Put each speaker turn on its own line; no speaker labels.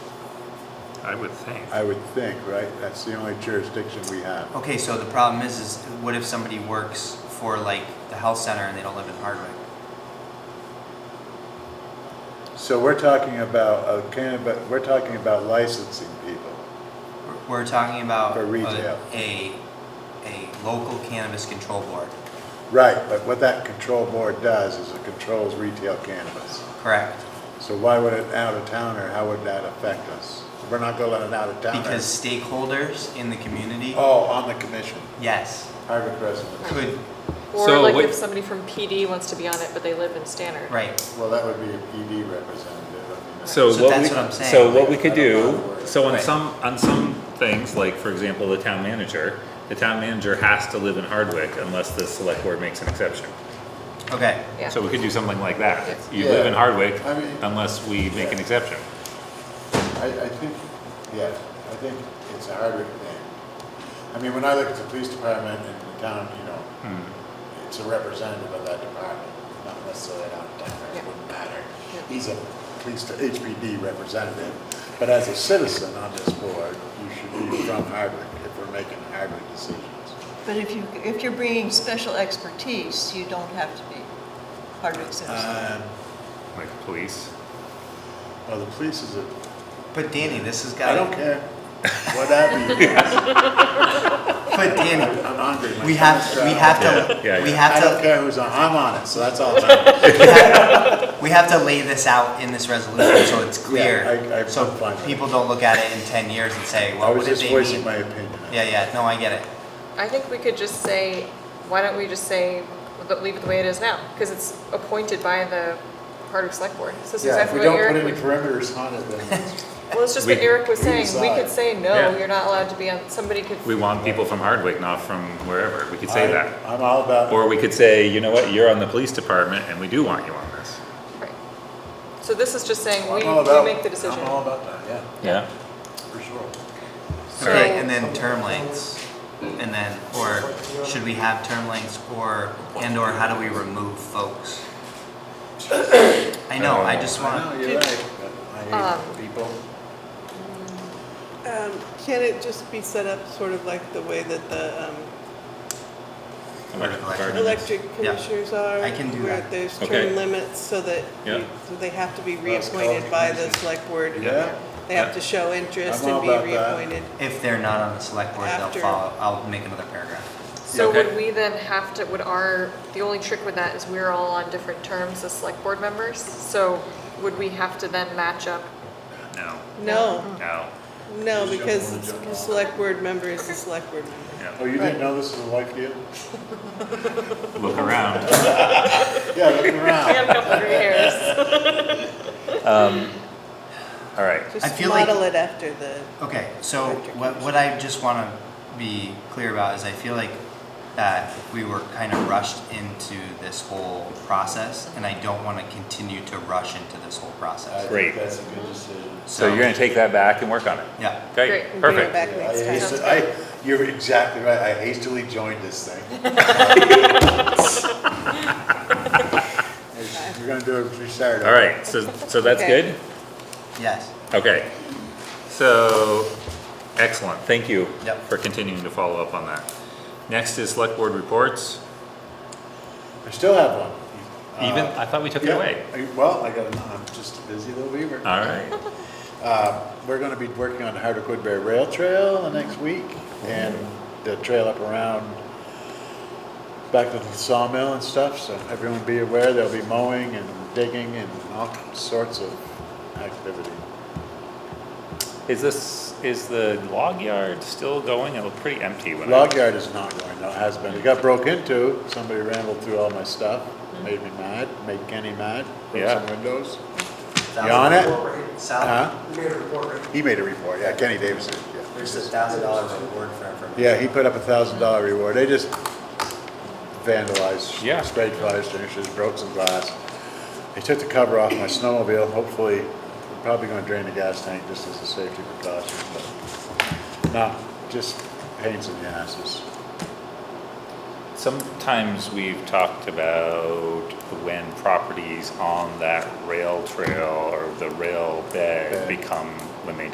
I would think.
I would think, right? That's the only jurisdiction we have.
Okay, so the problem is, is what if somebody works for like the health center and they don't live in Hardwick?
So we're talking about, uh, cannabis, we're talking about licensing people.
We're- We're talking about
For
a-
retail.
a, a local cannabis control board,
Right, but what that control board does is it controls retail cannabis.
correct?
So why would an out-of-towner, how would that affect us? We're not gonna let an out-of-towner.
Because stakeholders in the community,
Oh, on the commission,
yes,
Harvard residents.
could,
Or
So
like
what-
if somebody from PD wants to be on it, but they live in Stannard.
right,
Well, that would be a PD representative. I mean, that's-
So
So
what
that's
we,
what I'm saying.
so what we could
I don't know
do,
the word.
so on
Right.
some, on some things, like for example, the town manager, the town manager has to live in Hardwick unless the select board makes an exception.
okay.
Yeah.
So we could do something like that.
Yes.
You live in
Yeah.
Hardwick
I mean-
unless we make an exception.
I, I think, yeah, I think it's a Harvard thing. I mean, when I look at the police department in the town, you know,
Hmm.
it's a representative of that department, not necessarily an out-of-towner, it
Yeah.
wouldn't matter.
Yeah.
He's a police, HPD representative, but as a citizen on this board, you should be from Harvard if we're making Harvard decisions.
But if you, if you're bringing special expertise, you don't have to be Hardwick citizen.
Um,
Like police,
Well, the police is a,
But Danny, this has
I
got,
don't care, whatever you guys,
but Danny,
I'm hungry. my
we have,
stomach's
we
growling.
have
Yeah, yeah,
to, we
yeah.
I
have to.
don't care who's on, I'm on it, so that's all. I'm-
We have- We have to lay this out in this resolution so it's
Yeah, I-
clear.
I'm
So
fine with it.
people don't look at it in ten years and say,
I
well, what
was
did
just
they
voicing
mean?
my opinion.
Yeah, yeah, no, I get it.
I think we could just say, why don't we just say, but leave it the way it is now? Because it's appointed by the Hardwick Select Board. So this is
Yeah, if
exactly
we
what
don't put any
Eric,
perimeters on it, then it's-
well, it's just what
We-
Eric was
we
saying. We
decide.
could say,
Yeah.
no, you're not allowed to be on, somebody could,
we want people from Hardwick, not from wherever. We could say
I-
that.
I'm all about.
Or we could say, you know what, you're on the police department and we do want you on this.
right. So this is just saying,
I'm
we,
all about-
we make the decision.
I'm all about that, yeah,
Yeah.
for sure.
So-
Okay, and then term lengths, and then, or should we have term lengths or, and or how do we remove folks? I know, I just
I know,
want,
you're right, oh, but I
Um,
hate people.
Um, Can it just be set up sort of like the way that the um,
Electric department.
electric
Yeah.
commissioners are?
I can do
Where
that.
there's
Okay.
term limits so that
Yeah.
you- so they have to be
Well, it's called
reappointed by the
commission.
select board.
Yeah.
They have to show interest
I'm all
and be
about that.
reappointed.
if they're not on the select board, they'll
After.
follow, I'll make another paragraph.
So
Okay.
would we then have to, would our, the only trick with that is we're all on different terms as select board members? So would we have to then match up?
No,
No,
no,
no,
Just
because
jump on the
it's-
jump
the
off.
select board member is the select board member.
Oh,
no.
you didn't know this was a life deal?
Look around.
Yeah, look around.
a couple of years.
All right.
I
Just
feel like-
model it after the,
Okay, so what, what I just want to be clear about is I feel like that we were kind of rushed into this whole process, and I don't want to continue to rush into this whole
I
process.
think
Great.
That's a good decision.
So you're gonna take that back and work on it.
Yeah,
Okay,
Great.
bring it
perfect.
back
Yeah, I
next time.
hasti- I, you're exactly right, I hastily joined this thing. We're gonna do it, we started.
All right, so, so that's
Okay.
good?
yes,
Okay. So, excellent, thank you
Yep.
for continuing to follow up on that. Next is select board reports.
I still have one.
Even,
Uh,
I thought we took it
yeah,
away.
I- Well, I got, I'm just a busy little weaver.
All right,
Uh, We're going to be working on the Hardwick Woodbury Rail Trail the next week and the trail up around back to the sawmill and stuff. So everyone be aware, there'll be mowing and digging and all sorts of activity.
is this, is the log yard still going? It looked pretty empty when I.
Log yard is not going, no, it has been. It got broke into. Somebody rambled through all my stuff, made me mad, made Kenny mad, broke
Mm-hmm. Yeah.
some windows.
Thousand-
You on it? Uh-huh.
Sal,
Huh? He made a report, yeah, Kenny Davis did, yeah.
there's a thousand dollar reward for information.
Yeah, he put up a thousand dollar reward. They just vandalized,
Yeah.
sprayed fire extinguishers, broke some glass. They took the cover off my snowmobile. Hopefully, I'm probably gonna drain the gas tank just as a safety precaution, but not just pains in the asses.
Sometimes we've talked about when properties on that rail trail or the rail bed
Bed.
become, when they